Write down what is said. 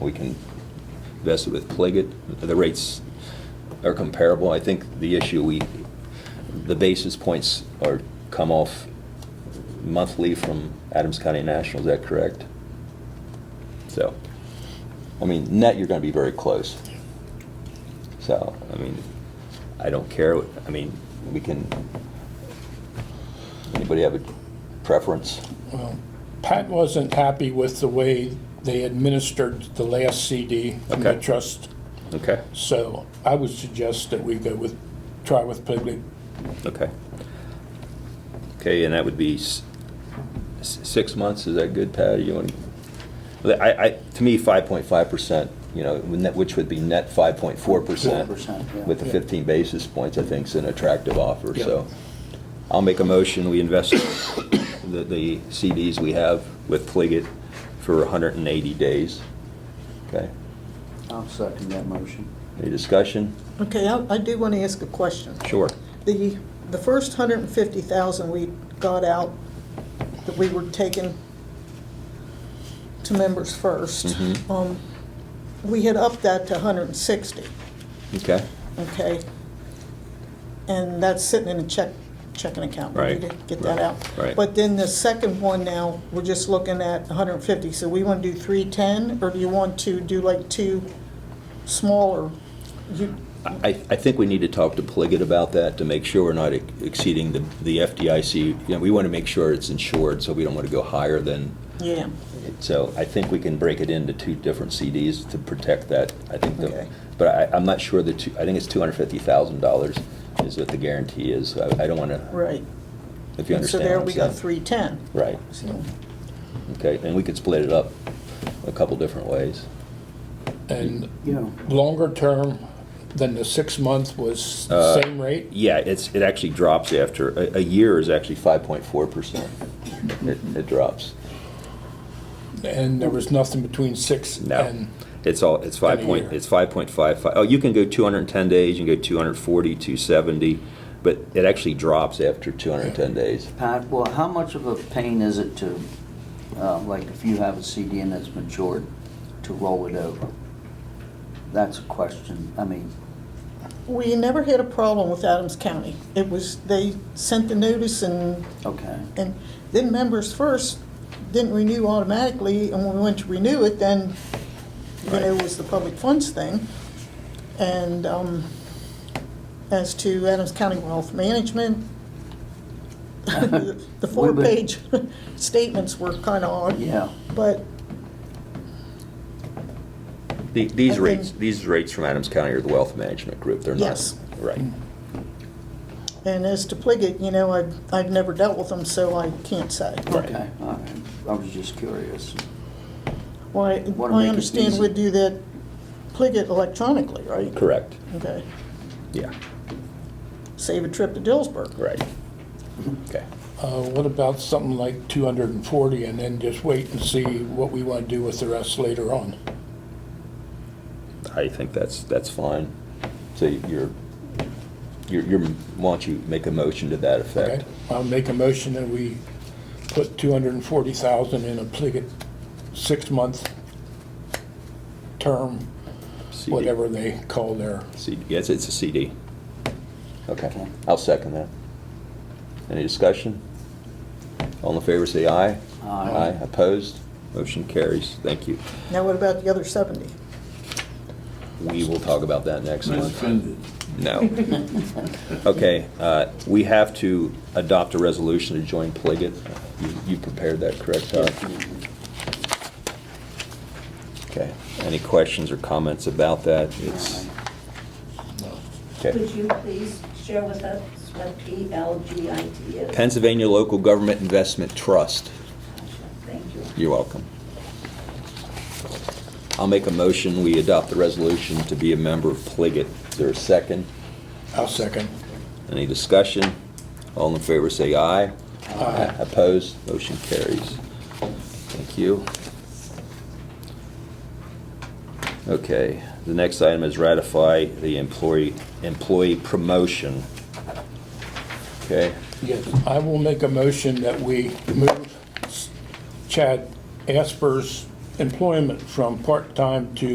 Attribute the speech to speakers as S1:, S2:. S1: We can invest it with Pliget. The rates are comparable. I think the issue we, the basis points are come off monthly from Adams County National, is that correct? So, I mean, net, you're gonna be very close. So, I mean, I don't care, what- I mean, we can, anybody have a preference?
S2: Well, Pat wasn't happy with the way they administered the last CD from the
S1: Okay.
S2: trust,
S1: Okay.
S2: so I would suggest that we go with, try with Pligley.
S1: Okay. Okay, and that would be s- s- six months, is that good, Patty? You want, I, I, to me, 5.5%, you know, when that- which would be net 5.4%.
S3: 4%, yeah.
S1: With the
S2: Yeah.
S1: 15 basis points, I think is an attractive offer,
S2: Yeah.
S1: so. I'll make a motion, we invest the, the CDs we have with Pliget for 180 days. Okay,
S3: I'll second that motion.
S1: any discussion?
S4: Okay, I, I do want to ask a question.
S1: Sure.
S4: The, the first hundred and fifty thousand we got out, that we were taking to members first,
S1: Mhm.
S4: um, we had upped that to hundred and sixty,
S1: Okay,
S4: okay? And that's sitting in a check, checking account. We
S1: Right,
S4: need to Get that
S1: right,
S4: out.
S1: right.
S4: But then the second one now, we're just looking at hundred and fifty, so we want to do three ten, or do you want to do like two smaller? You,
S1: I, I think we need to talk to Pliget about that to make sure we're not ex- exceeding the, the FDIC. You know, we want to make sure it's insured, so we don't want to go higher than,
S4: yeah.
S1: so I think we can break it into two different CDs to protect that. I think the,
S4: Okay.
S1: but I, I'm not sure the two, I think it's two hundred fifty thousand dollars is what the guarantee is. I, I don't want to,
S4: Right.
S1: if you
S4: And
S1: understand
S4: So there
S1: what I'm
S4: we got
S1: saying.
S4: three ten.
S1: Right,
S4: So,
S1: okay, and we could split it up a couple different ways.
S2: And
S3: Yeah.
S2: longer term than the six month was
S1: Uh,
S2: the same rate?
S1: Yeah, it's, it actually drops after, a, a year is actually five point four percent. It, it drops.
S2: And there was nothing between six
S1: No,
S2: and,
S1: it's all, it's five
S2: a
S1: point,
S2: year.
S1: it's five point five five. Oh, you can go two hundred and ten days, you can go 240, 270, but it actually drops after two hundred and ten days.
S3: Pat, well, how much of a pain is it to, uh, like, if you have a CD and it's matured, to roll it over? That's a question. I mean,
S4: We never had a problem with Adams County. It was, they sent the notice and,
S3: okay.
S4: and then members first didn't renew automatically, and when we went to renew it, then, you know, it was the public funds thing. And, um, as to Adams County Wealth Management, the four-page statements were kind of odd.
S3: Yeah.
S4: But
S1: The- These
S4: I
S1: rates,
S4: think-
S1: these rates from Adams County are the wealth management group, they're not.
S4: Yes.
S1: Right,
S4: And as to Pliget, you know, I've, I've never dealt with them, so I can't say.
S1: Right.
S3: Okay, all right. I was just curious.
S4: Well, I-
S3: Wanna make
S4: I
S3: it
S4: understand
S3: easy.
S4: we do that Pliget electronically, right?
S1: correct,
S4: Okay.
S1: yeah,
S4: Save a trip to Dillsburg.
S1: right. Okay,
S2: uh, what about something like two hundred and forty and then just wait and see what we want to do with the rest later on?
S1: I think that's, that's fine. So you're, you're, you're, why don't you make a motion to that
S2: Okay,
S1: effect?
S2: I'll make a motion that we put two hundred and forty thousand in a Pliget six-month term,
S1: CD.
S2: whatever they call their,
S1: CD, yes, it's a CD. Okay,
S3: Okay.
S1: I'll second that. Any discussion? All in favor, say aye.
S3: Aye.
S1: opposed? Motion carries. Thank you.
S4: Now what about the other 70?
S1: We will talk about that next
S5: Not
S1: month.
S5: offended.
S1: No. Okay, uh, we have to adopt a resolution to join Pliget. You- You prepared that, correct, Todd? Okay, any questions or comments about that? It's, okay.
S6: Could you please share with us what PLGIT is?
S1: Pennsylvania Local Government Investment Trust.
S6: Thank you.
S1: You're welcome. I'll make a motion, we adopt the resolution to be a member of Pliget. Is there a second?
S2: I'll second.
S1: Any discussion? All in favor, say aye. Aye. Opposed? Motion carries. Thank you. Okay, the next item is ratify the employee, employee promotion. Okay,
S2: Yes, I will make a motion that we move Chad Asper's employment from part-time to